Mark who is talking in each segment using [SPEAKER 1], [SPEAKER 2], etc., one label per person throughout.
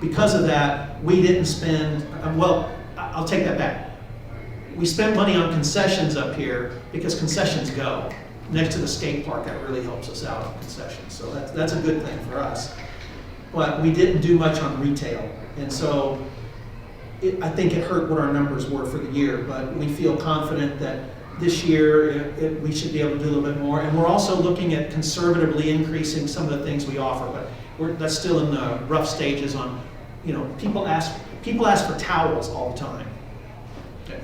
[SPEAKER 1] Because of that, we didn't spend, um, well, I- I'll take that back. We spent money on concessions up here because concessions go. Next to the skate park, that really helps us out on concessions, so that's, that's a good thing for us. But we didn't do much on retail, and so it, I think it hurt what our numbers were for the year, but we feel confident that this year it, it, we should be able to do a little bit more. And we're also looking at conservatively increasing some of the things we offer, but we're, that's still in the rough stages on, you know, people ask, people ask for towels all the time.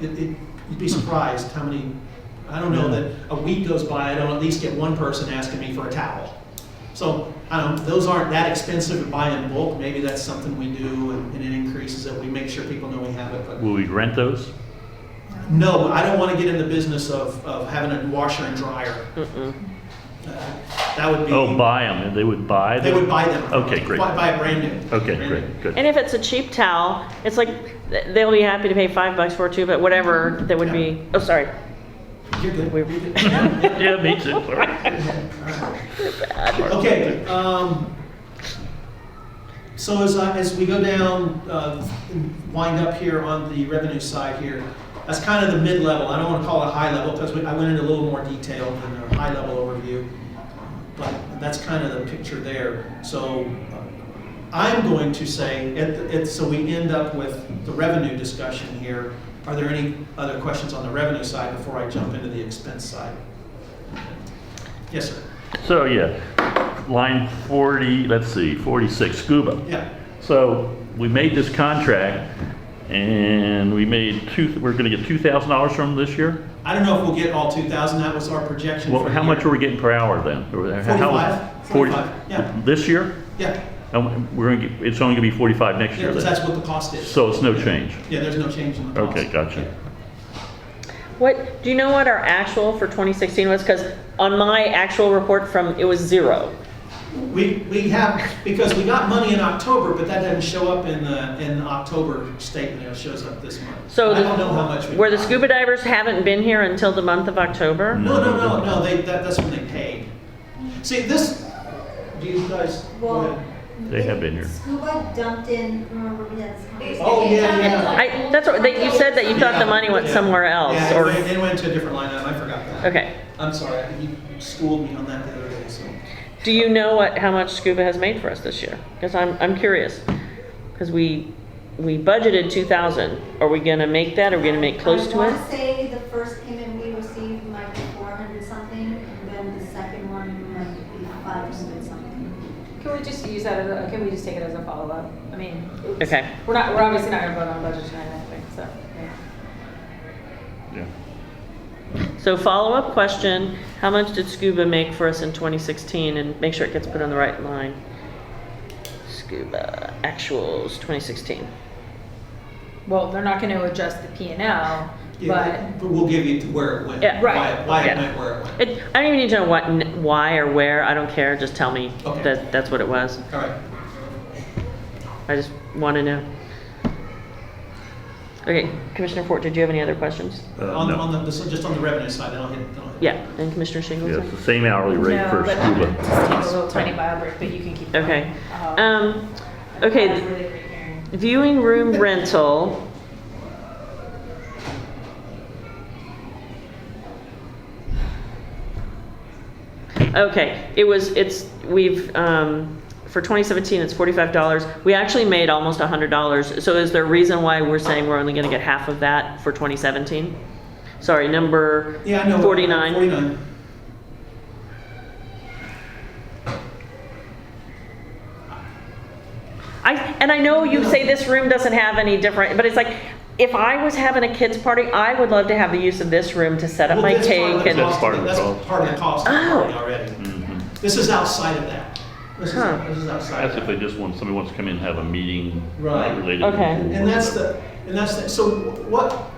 [SPEAKER 1] It, it, you'd be surprised how many, I don't know that a week goes by, I don't at least get one person asking me for a towel. So, I don't, those aren't that expensive to buy in bulk, maybe that's something we do and, and it increases it, we make sure people know we have it, but.
[SPEAKER 2] Will we rent those?
[SPEAKER 1] No, I don't wanna get in the business of, of having a washer and dryer. Uh, That would be.
[SPEAKER 2] Oh, buy them, and they would buy them?
[SPEAKER 1] They would buy them.
[SPEAKER 2] Okay, great.
[SPEAKER 1] Buy, buy a brand new.
[SPEAKER 2] Okay,
[SPEAKER 1] Brand new.
[SPEAKER 2] great, good.
[SPEAKER 3] And if it's a cheap towel, it's like, th- they'll be happy to pay five bucks for it too, but whatever, that would be, oh, sorry.
[SPEAKER 1] You're good.
[SPEAKER 3] We-
[SPEAKER 2] Yeah, me too. All right.
[SPEAKER 1] Okay, um, so as, I- as we go down, uh, and wind up here on the revenue side here, that's kind of the mid-level, I don't wanna call it high level, because I went into a little more detail than a high-level overview, but that's kind of the picture there, so uh, I'm going to say, at, the- at, so we end up with the revenue discussion here, are there any other questions on the revenue side before I jump into the expense side? Yes, sir,
[SPEAKER 2] So, yeah, line 40, let's see, 46, scuba.
[SPEAKER 1] yeah.
[SPEAKER 2] So we made this contract, and we made two, we're going to get $2,000 from them this year?
[SPEAKER 1] I don't know if we'll get all two thousand, that was our projection.
[SPEAKER 2] Well,
[SPEAKER 1] for the
[SPEAKER 2] how much are
[SPEAKER 1] year.
[SPEAKER 2] we getting per hour then? Or how- how-
[SPEAKER 1] 45,
[SPEAKER 2] 40
[SPEAKER 1] 45, yeah.
[SPEAKER 2] This year?
[SPEAKER 1] Yeah,
[SPEAKER 2] And we're going to, it's only going to be 45 next
[SPEAKER 1] yeah,
[SPEAKER 2] year
[SPEAKER 1] because
[SPEAKER 2] then?
[SPEAKER 1] that's what the cost is.
[SPEAKER 2] So it's no change?
[SPEAKER 1] Yeah, there's no change in the cost.
[SPEAKER 2] Okay, gotcha.
[SPEAKER 3] What, do you know what our actual for 2016 was? Because on my actual report from, it was zero.
[SPEAKER 1] We, we have, because we got money in October, but that doesn't show up in the, in the October statement, it shows up this month.
[SPEAKER 3] So
[SPEAKER 1] I
[SPEAKER 3] the-
[SPEAKER 1] don't know how much we.
[SPEAKER 3] Where the
[SPEAKER 1] got.
[SPEAKER 3] scuba divers haven't been here until the month of October?
[SPEAKER 1] No, no, no, no, they, that, that's when they paid. See, this, do you guys? go
[SPEAKER 4] Well.
[SPEAKER 1] ahead.
[SPEAKER 2] They have been here.
[SPEAKER 4] Scuba dumped in, remember we had this conversation?
[SPEAKER 1] Oh, yeah, yeah.
[SPEAKER 3] I, that's what, that you said that you thought
[SPEAKER 1] Yeah,
[SPEAKER 3] the money went
[SPEAKER 1] yeah.
[SPEAKER 3] somewhere else,
[SPEAKER 1] Yeah, it
[SPEAKER 3] or,
[SPEAKER 1] went- it went to a different line item, I forgot that.
[SPEAKER 3] okay.
[SPEAKER 1] I'm sorry, I- you schooled me on that the other day, so.
[SPEAKER 3] Do you know what, how much scuba has made for us this year? Because I'm, I'm curious, because we, we budgeted 2,000. Are we gonna make that? Are we gonna make close to
[SPEAKER 4] I
[SPEAKER 3] it?
[SPEAKER 4] want to say the first payment we received might be four hundred something, and then the second one might be five hundred something.
[SPEAKER 5] Can we just use that as a, can we just take it as a follow-up? I mean,
[SPEAKER 3] Okay.
[SPEAKER 5] we're not, we're obviously not gonna vote on budget tonight, I don't think, so. yeah.
[SPEAKER 2] Yeah.
[SPEAKER 3] So follow-up question, how much did scuba make for us in 2016? And make sure it gets put on the right line. Scuba actuals 2016.
[SPEAKER 5] Well, they're not gonna adjust the P and L,
[SPEAKER 1] Yeah,
[SPEAKER 5] but
[SPEAKER 1] But we'll give you to where it went.
[SPEAKER 3] Yeah.
[SPEAKER 1] why-
[SPEAKER 5] Right.
[SPEAKER 1] Why it
[SPEAKER 3] Yeah.
[SPEAKER 1] went where it went.
[SPEAKER 3] It, I don't even need to know what, n- why or where, I don't care, just tell me
[SPEAKER 1] Okay.
[SPEAKER 3] that that's what it was.
[SPEAKER 1] All right.
[SPEAKER 3] I just want to know. Okay, Commissioner Fort, did you have any other questions?
[SPEAKER 2] Uh,
[SPEAKER 1] On,
[SPEAKER 2] no.
[SPEAKER 1] on the, so just on the revenue side, then I'll hit, then I'll hit.
[SPEAKER 3] Yeah, and Commissioner
[SPEAKER 2] Yeah, it's
[SPEAKER 3] Shingleton?
[SPEAKER 2] the same hourly rate
[SPEAKER 5] No,
[SPEAKER 2] for
[SPEAKER 5] but
[SPEAKER 2] scuba.
[SPEAKER 5] Just take a little tiny bio break, but you can keep. going.
[SPEAKER 3] Okay.
[SPEAKER 5] Uh,
[SPEAKER 3] Um,
[SPEAKER 5] that's
[SPEAKER 3] okay,
[SPEAKER 5] really great hearing.
[SPEAKER 3] viewing room rental. Okay, it was, it's, we've, um, for 2017, it's $45. We actually made almost $100. So is there a reason why we're saying we're only going to get half of that for 2017? Sorry, number
[SPEAKER 1] Yeah, I know.
[SPEAKER 3] 49.
[SPEAKER 1] Forty-nine.
[SPEAKER 3] I, and I know you say this room doesn't have any different, but it's like, if I was having a kids party, I would love to have the use of this room to set up
[SPEAKER 1] Well,
[SPEAKER 3] my
[SPEAKER 1] that's part of
[SPEAKER 3] cake
[SPEAKER 1] the
[SPEAKER 3] and,
[SPEAKER 2] That's part of the
[SPEAKER 1] That's
[SPEAKER 2] cost.
[SPEAKER 1] part of the cost of the
[SPEAKER 3] Oh.
[SPEAKER 1] party already.
[SPEAKER 2] Mhm.
[SPEAKER 1] This is outside of that. This is,
[SPEAKER 3] Huh.
[SPEAKER 1] this is outside
[SPEAKER 2] That's
[SPEAKER 1] of
[SPEAKER 2] if
[SPEAKER 1] that.
[SPEAKER 2] they just want, somebody wants to come in and have a meeting
[SPEAKER 1] Right.
[SPEAKER 2] not related. to the
[SPEAKER 3] Okay.
[SPEAKER 2] pool or
[SPEAKER 1] And that's
[SPEAKER 2] whatever.
[SPEAKER 1] the, and that's the, so what?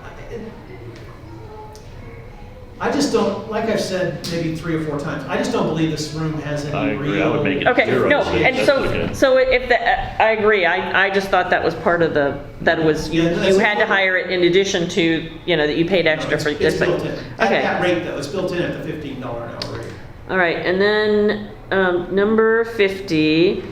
[SPEAKER 1] I just don't, like I've said maybe three or four times, I just don't believe this room has
[SPEAKER 2] I
[SPEAKER 1] any real.
[SPEAKER 2] agree, I would make it
[SPEAKER 3] okay,
[SPEAKER 2] zero.
[SPEAKER 3] no,
[SPEAKER 2] so
[SPEAKER 3] and
[SPEAKER 2] that's
[SPEAKER 3] so,
[SPEAKER 2] okay.
[SPEAKER 3] so if the, I agree, I, I just thought that was part of the, that was, you,
[SPEAKER 1] Yeah, that's-
[SPEAKER 3] you had to hire it in addition to, you know, that you paid
[SPEAKER 1] No,
[SPEAKER 3] extra
[SPEAKER 1] it's-
[SPEAKER 3] for
[SPEAKER 1] It's
[SPEAKER 3] this. but-
[SPEAKER 1] built in. At that
[SPEAKER 3] Okay,
[SPEAKER 1] rate though, it's built in at the fifteen dollar an hour rate. Mm-hmm.
[SPEAKER 3] all right, and then, um, number 50,